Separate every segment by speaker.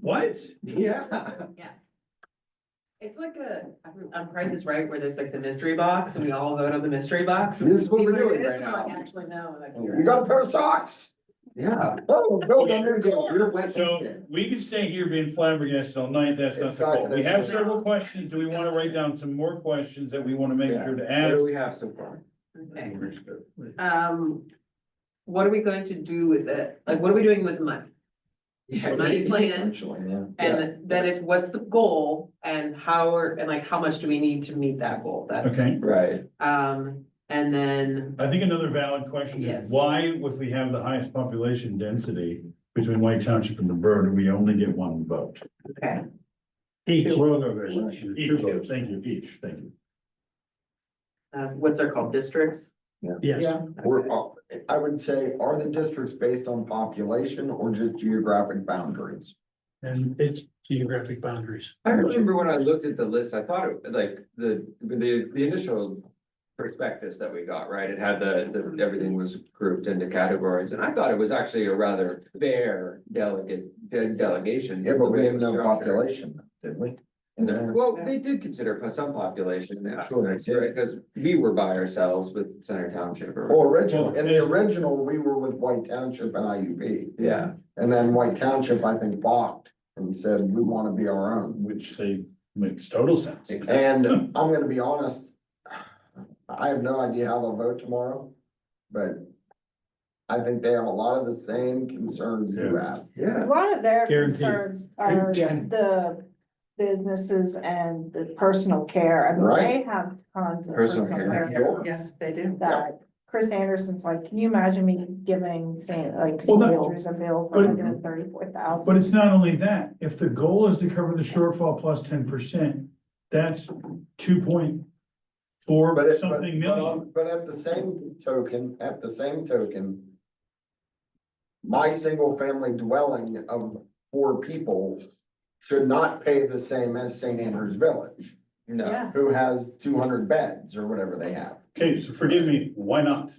Speaker 1: What?
Speaker 2: Yeah.
Speaker 3: It's like a, on Price is Right, where there's like the mystery box, and we all vote on the mystery box.
Speaker 2: This is what
Speaker 3: See
Speaker 2: we're
Speaker 3: it
Speaker 2: doing
Speaker 3: is,
Speaker 2: right
Speaker 3: and
Speaker 2: now.
Speaker 3: I Actually know, like.
Speaker 2: Yeah.
Speaker 4: You got a pair of socks?
Speaker 2: Yeah.
Speaker 4: Oh, Bill, I'm
Speaker 2: You're
Speaker 4: gonna go.
Speaker 2: wet.
Speaker 1: So we can stay here being flabbergasted all night. That's not
Speaker 4: It's
Speaker 1: the
Speaker 4: not
Speaker 1: goal.
Speaker 4: gonna
Speaker 1: We have
Speaker 4: happen.
Speaker 1: several questions. Do we want to write down some more questions that we want to make
Speaker 2: Yeah.
Speaker 1: sure to
Speaker 2: What
Speaker 1: ask?
Speaker 2: do we have so far?
Speaker 3: Okay, um, what are we going to do with it? Like, what are we doing with the money?
Speaker 2: Yeah.
Speaker 3: Money plan,
Speaker 4: Actually, yeah.
Speaker 3: and then if, what's the goal, and how are, and like, how much do we need to meet that goal? That's,
Speaker 1: Okay,
Speaker 2: Right.
Speaker 3: um, and then,
Speaker 1: I think another valid question is
Speaker 3: Yes.
Speaker 1: why, if we have the highest population density between White Township and the Borough, do we only get one vote?
Speaker 3: okay,
Speaker 5: Each.
Speaker 1: Each, thank you, each, thank you.
Speaker 3: uh, what's our called districts?
Speaker 5: Yes,
Speaker 4: We're, all- I would say, are the districts based on population or just geographic boundaries?
Speaker 5: and it's geographic boundaries.
Speaker 2: I remember when I looked at the list, I thought it, like, the, the, the initial prospectus that we got, right? It had the, the, everything was grouped into categories, and I thought it was actually a rather fair delegate, de- delegation.
Speaker 4: Yeah, but we
Speaker 2: the way it
Speaker 4: didn't
Speaker 2: was
Speaker 4: know
Speaker 2: structured.
Speaker 4: population, did we? And
Speaker 2: No,
Speaker 4: then-
Speaker 2: Well, they did consider for some population
Speaker 4: Sure they
Speaker 2: aspects,
Speaker 4: did.
Speaker 2: right? Because we were by ourselves with Center Township or,
Speaker 4: Or original, in the original, we were with White Township and IUB.
Speaker 2: yeah,
Speaker 4: And then White Township, I think, balked and said, we wanna be our own.
Speaker 1: Which they makes total sense.
Speaker 2: exactly.
Speaker 4: And I'm gonna be honest, I have no idea how they'll vote tomorrow, but I think they have a lot of the same concerns you have.
Speaker 2: Yeah.
Speaker 6: A lot of their
Speaker 5: Guaranteed.
Speaker 6: concerns are
Speaker 5: Guaranteed.
Speaker 6: the businesses and the personal care. I mean,
Speaker 4: Right.
Speaker 6: they have tons of
Speaker 2: Personal
Speaker 6: personal
Speaker 2: care.
Speaker 6: care
Speaker 4: Yours.
Speaker 3: Yes, they do.
Speaker 6: that Chris Anderson's like, can you imagine me giving, saying, like,
Speaker 1: Well,
Speaker 6: St.
Speaker 1: that-
Speaker 6: Andrews a bill
Speaker 1: but-
Speaker 6: for hundred and thirty-four thousand?
Speaker 1: But it's not only that, if the goal is to cover the shortfall plus ten percent, that's two point four
Speaker 4: But it, but,
Speaker 1: something
Speaker 4: but
Speaker 1: million.
Speaker 4: on- but at the same token, at the same token. My single family dwelling of four people should not pay the same as St. Andrews Village,
Speaker 2: No,
Speaker 4: who has two hundred beds or whatever they have.
Speaker 1: Okay, so forgive me, why not?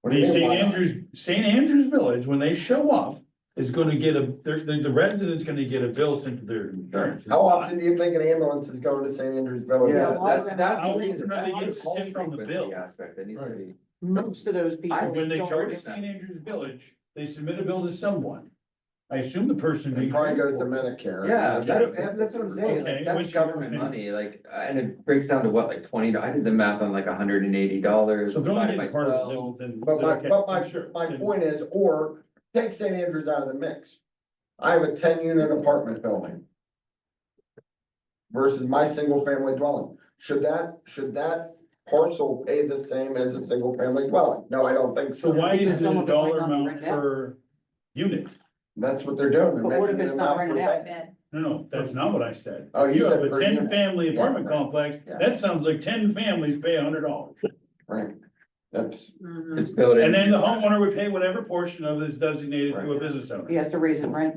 Speaker 4: What do you
Speaker 1: The
Speaker 4: mean,
Speaker 1: St.
Speaker 4: why not?
Speaker 1: Andrews, St. Andrews Village, when they show up, is gonna get a, they're- the, the resident's gonna get a bill sent to their insurance.
Speaker 4: How often do you think an ambulance is going to St. Andrews Village?
Speaker 2: yeah,
Speaker 6: why
Speaker 2: that's,
Speaker 6: would-
Speaker 2: that's
Speaker 1: How
Speaker 2: the
Speaker 1: would
Speaker 2: reason,
Speaker 1: they
Speaker 2: that's
Speaker 1: get
Speaker 2: the call
Speaker 1: stiff on the bill?
Speaker 2: frequency aspect that needs to be.
Speaker 5: Most of those people.
Speaker 1: When they
Speaker 5: don't
Speaker 1: charge
Speaker 5: do that.
Speaker 1: St. Andrews Village, they submit a bill to someone. I assume the person.
Speaker 4: It
Speaker 1: being
Speaker 4: probably goes to
Speaker 1: paid for.
Speaker 4: Medicare.
Speaker 2: Yeah, that- that- that's what I'm saying,
Speaker 1: Okay,
Speaker 2: like, that's
Speaker 1: which-
Speaker 2: government
Speaker 1: okay.
Speaker 2: money, like, uh, and it breaks down to what, like twenty, I did the math on like hundred and eighty dollars.
Speaker 1: So they're only
Speaker 2: divided by
Speaker 1: getting part of it,
Speaker 2: 12.
Speaker 1: then- then.
Speaker 4: But my,
Speaker 1: okay,
Speaker 4: but my,
Speaker 1: sure,
Speaker 4: my
Speaker 1: then-
Speaker 4: point is, or take St. Andrews out of the mix. I have a ten unit apartment building. Versus my single family dwelling. Should that, should that parcel pay the same as a single family dwelling? No, I don't think
Speaker 1: So
Speaker 4: so.
Speaker 1: why is it
Speaker 7: Some
Speaker 1: a
Speaker 7: of it might
Speaker 1: dollar
Speaker 7: not be
Speaker 1: amount
Speaker 7: rented out.
Speaker 1: per unit?
Speaker 4: That's what they're doing. They're
Speaker 7: But what if
Speaker 4: making
Speaker 7: it's
Speaker 4: an
Speaker 7: not
Speaker 4: amount
Speaker 7: rented
Speaker 4: per
Speaker 7: out?
Speaker 4: bed.
Speaker 1: No, no, that's not what I said.
Speaker 4: Oh,
Speaker 1: If
Speaker 4: you said
Speaker 1: have a
Speaker 4: per
Speaker 1: ten
Speaker 4: unit.
Speaker 1: family
Speaker 4: Yeah,
Speaker 1: apartment
Speaker 4: right.
Speaker 1: complex,
Speaker 4: Yeah.
Speaker 1: that sounds like ten families pay hundred dollars.
Speaker 4: Right. That's,
Speaker 3: Mhm.
Speaker 2: It's built in.
Speaker 1: And then the homeowner would pay whatever portion of it is designated to a
Speaker 2: Right.
Speaker 1: business owner.
Speaker 7: He has to raise it, right?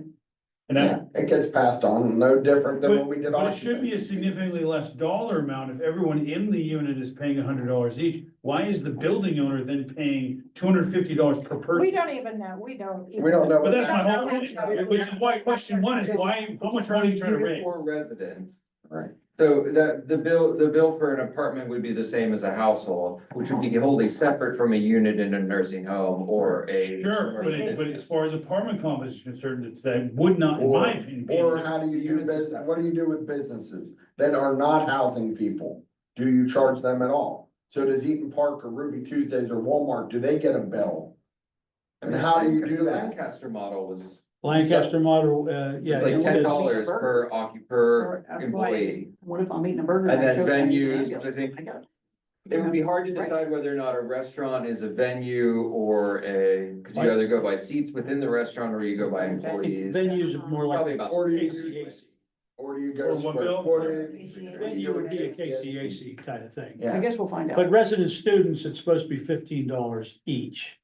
Speaker 1: And
Speaker 4: yeah,
Speaker 1: that,
Speaker 4: it gets passed on, no different than what we did.
Speaker 1: but it should be a
Speaker 4: occupancy.
Speaker 1: significantly less dollar amount if everyone in the unit is paying hundred dollars each. Why is the building owner then paying two hundred fifty dollars per
Speaker 6: We
Speaker 1: person?
Speaker 6: don't even know, we don't.
Speaker 4: We don't know.
Speaker 1: But that's my whole
Speaker 6: Yeah.
Speaker 1: point, which is why question one is why, how much money are you trying to
Speaker 2: Unit
Speaker 1: raise?
Speaker 2: For residents.
Speaker 4: Right.
Speaker 2: So the, the bill, the bill for an apartment would be the same as a household, which would be wholly separate from a unit in a nursing home or a.
Speaker 1: Sure, but, it- but as far as apartment complex is concerned, it's, that would not, in my opinion. be-
Speaker 4: Or how do you do business, what do you do with businesses that are not housing people? Do you charge them at all? So does Eaton Park or Ruby Tuesdays or Walmart, do they get a bill? And how do you do that?
Speaker 2: Lancaster model was,
Speaker 5: Lancaster model, uh, yeah.
Speaker 2: it's like
Speaker 5: it
Speaker 2: ten
Speaker 5: is.
Speaker 2: dollars per occup, per
Speaker 7: Or
Speaker 2: employee.
Speaker 7: What if I'm eating a burger?
Speaker 2: And
Speaker 7: I
Speaker 2: then
Speaker 7: choke on an
Speaker 2: venues,
Speaker 7: ambulance?
Speaker 2: which I think-
Speaker 7: I got-
Speaker 2: It would be hard to
Speaker 7: Right.
Speaker 2: decide whether or not a restaurant is a venue or a, cause you either go by seats within the restaurant or you go by employees.
Speaker 5: Venues are more
Speaker 2: Probably
Speaker 5: like
Speaker 2: about.
Speaker 4: Or do you,
Speaker 5: KCAC.
Speaker 4: or do you
Speaker 1: Or
Speaker 4: go
Speaker 1: what
Speaker 4: square
Speaker 1: bill?
Speaker 4: footage?
Speaker 5: Venue would be a KCAC kind of thing.
Speaker 7: I
Speaker 4: Yeah,
Speaker 7: guess we'll find out.
Speaker 5: But resident students, it's supposed to be fifteen dollars each.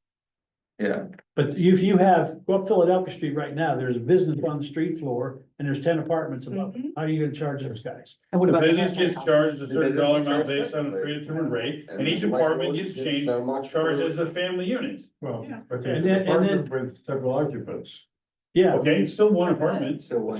Speaker 2: Yeah.
Speaker 5: But if you have, go up Philadelphia Street right now, there's a business on the street floor and there's ten apartments above. it. How are you gonna charge those guys?
Speaker 7: And what
Speaker 1: The
Speaker 7: about the
Speaker 1: business
Speaker 7: halfway
Speaker 1: gets
Speaker 7: house?
Speaker 1: charged a
Speaker 2: The
Speaker 1: certain
Speaker 2: business
Speaker 1: dollar
Speaker 2: is
Speaker 1: amount
Speaker 2: charged
Speaker 1: based on a
Speaker 2: separately.
Speaker 1: predetermined rate,
Speaker 4: And
Speaker 1: and each
Speaker 4: the
Speaker 1: apartment
Speaker 4: landlord
Speaker 1: gets
Speaker 4: gets
Speaker 1: changed,
Speaker 4: So much.
Speaker 1: charged
Speaker 4: per-
Speaker 1: as the family unit.
Speaker 8: Well,
Speaker 5: And
Speaker 8: okay,
Speaker 5: then- and
Speaker 8: apartment with several occupants.
Speaker 5: Yeah,
Speaker 1: Okay, it's still one apartment.
Speaker 2: So one